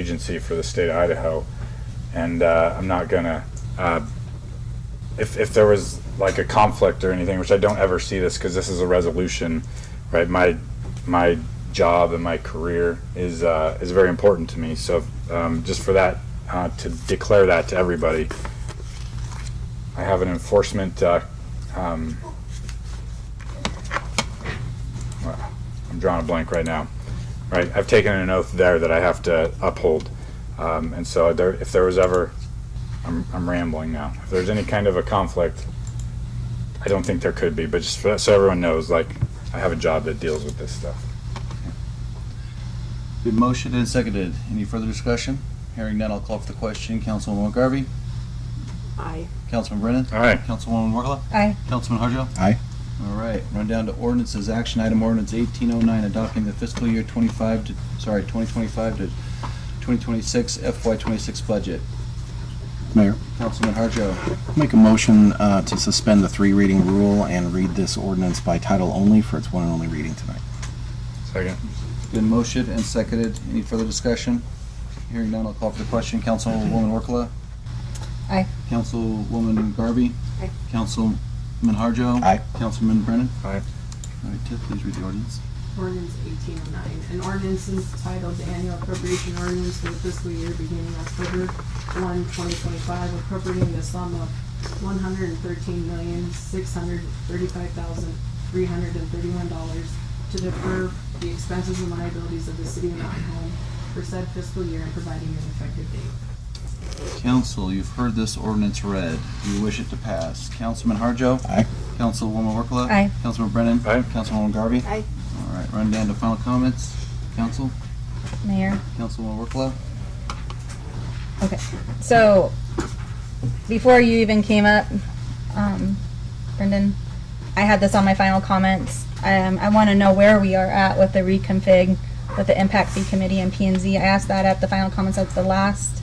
agency for the state of Idaho, and uh, I'm not gonna. Uh, if if there was like a conflict or anything, which I don't ever see this because this is a resolution, right? My my job and my career is uh, is very important to me. So um, just for that uh, to declare that to everybody, I have an enforcement. Uh, um, well, I'm drawing a blank right now right? I've taken an oath there that I have to uphold. Um, and so there, if there was ever, I'm, I'm rambling now. If there's any kind of a conflict, I don't think there could be, but just for, so everyone knows, like, I have a job that deals with this stuff. Been motioned and seconded. Any further discussion? Hearing none, I'll call for the question. Councilwoman McGarvey? Aye. Councilman Brennan? All right. Councilwoman Workla? Aye. Councilman Harjo? Aye. All right, run down to ordinances. Action item ordinance eighteen oh nine, adopting the fiscal year twenty-five to, sorry, twenty twenty-five to twenty twenty-six FY twenty-six budget. Mayor, Councilman Harjo? make a motion uh, to suspend the three reading rule and read this ordinance by title only for its one and only reading tonight. Second. Been motioned and seconded. Any further discussion? Hearing none, I'll call for the question. Councilwoman Workla? Aye. Councilwoman Garvey? Aye. Councilman Harjo? Aye. Councilman Brennan? Aye. All right, Tiff, please read the ordinance. Ordinance eighteen oh nine, an ordinance entitled the annual appropriation ordinance for the fiscal year beginning October 1, 2025, appropriating the sum of one hundred and thirteen million, six hundred thirty-five thousand, three hundred and thirty-one dollars to defer the expenses and liabilities of the city of Mountain Home for said fiscal year and providing an effective date. Council, you've heard this ordinance read. Do you wish it to pass? Councilman Harjo? Aye. Councilwoman Workla? Aye. Councilman Brennan? Aye. Councilwoman Garvey? Aye. All right, run down to final comments. Council, Mayor. Councilwoman Workla? Okay. So before you even came up, um, Brendan, I had this on my final comments. Um, I want to know where we are at with the reconfig, with the impact fee committee and P and Z. I asked that at the final comments at the last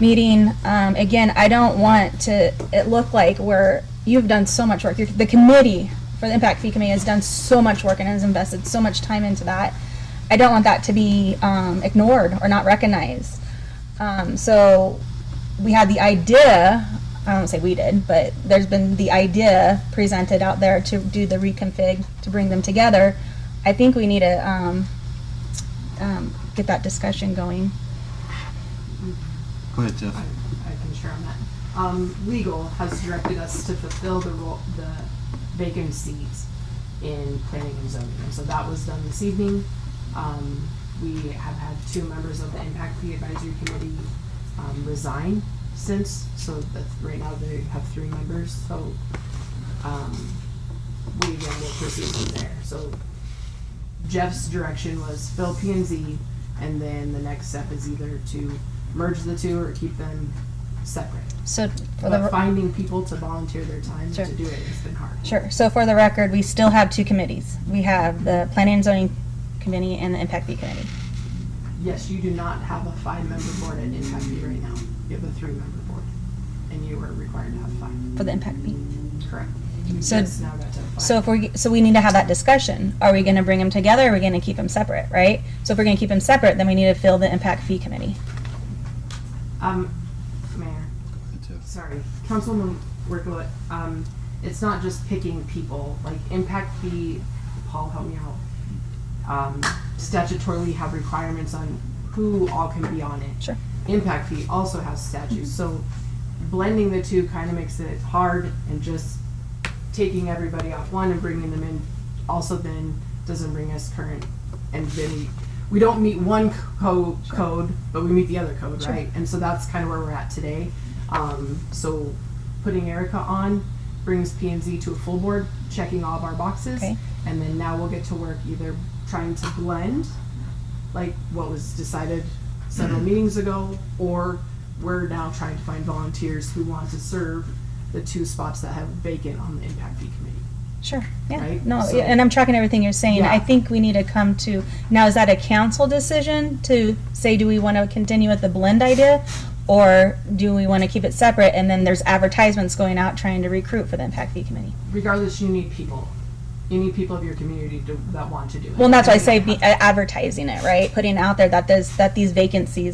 meeting. Um, again, I don't want to, it look like we're, you've done so much work. Your- The committee for the impact fee committee has done so much work and has invested so much time into that. I don't want that to be, um, ignored or not recognized. Um, so we had the idea, I don't say we did, but there's been the idea presented out there to do the reconfig, to bring them together. I think we need to, um, um, get that discussion going. Go ahead, Tiff. I I can share on that. Um, legal has directed us to fulfill the role, the vacant seats in planning and zoning, and so that was done this evening. Um, we have had two members of the impact fee advisory committee, um, resign since, so that's, right now they have three members, so, um, we again will proceed from there, so Jeff's direction was fill P and Z, and then the next step is either to merge the two or keep them separate. So for the. But finding people to volunteer their time Sure. to do it has been hard. Sure. So for the record, we still have two committees. We have the Planning and Zoning Committee and the Impact Fee Committee. Yes, you do not have a five-member board at Impact Fee right now. You have a three-member board, and you are required to have five. For the Impact Fee. Correct. You So- just now got to five. So if we so we need to have that discussion. Are we going to bring them together? Or are we going to keep them separate? Right. So if we're going to keep them separate, then we need to fill the Impact Fee Committee. Um, Mayor. Go ahead, Tiff. sorry, Councilwoman Workla, um, it's not just picking people, like impact fee, Paul, help me out. Um, statutorily have requirements on who all can be on it. Sure. Impact fee also has statutes, so blending the two kind of makes it hard and just taking everybody off one and bringing them in also then doesn't bring us current and then we, we don't meet one co- code but we meet the other code Sure. right and so that's kind of where we're at today um, so putting erica on brings P and Z to a full board checking all of our boxes Okay. and then now we'll get to work either trying to blend like what was decided several meetings ago, or we're now trying to find volunteers who want to serve the two spots that have vacant on the impact fee committee. Sure. Yeah. Right? No. So- yeah, and I'm tracking everything you're saying. Yeah. I think we need to come to now. Is that a council decision to say do we want to continue with the blend idea, or do we want to keep it separate? And then there's advertisements going out trying to recruit for the Impact Fee Committee. Regardless, you need people. You need people of your community to, that want to do uh, it. Well, and that's why I say be, advertising it, right? Putting out there that there's, that these vacancies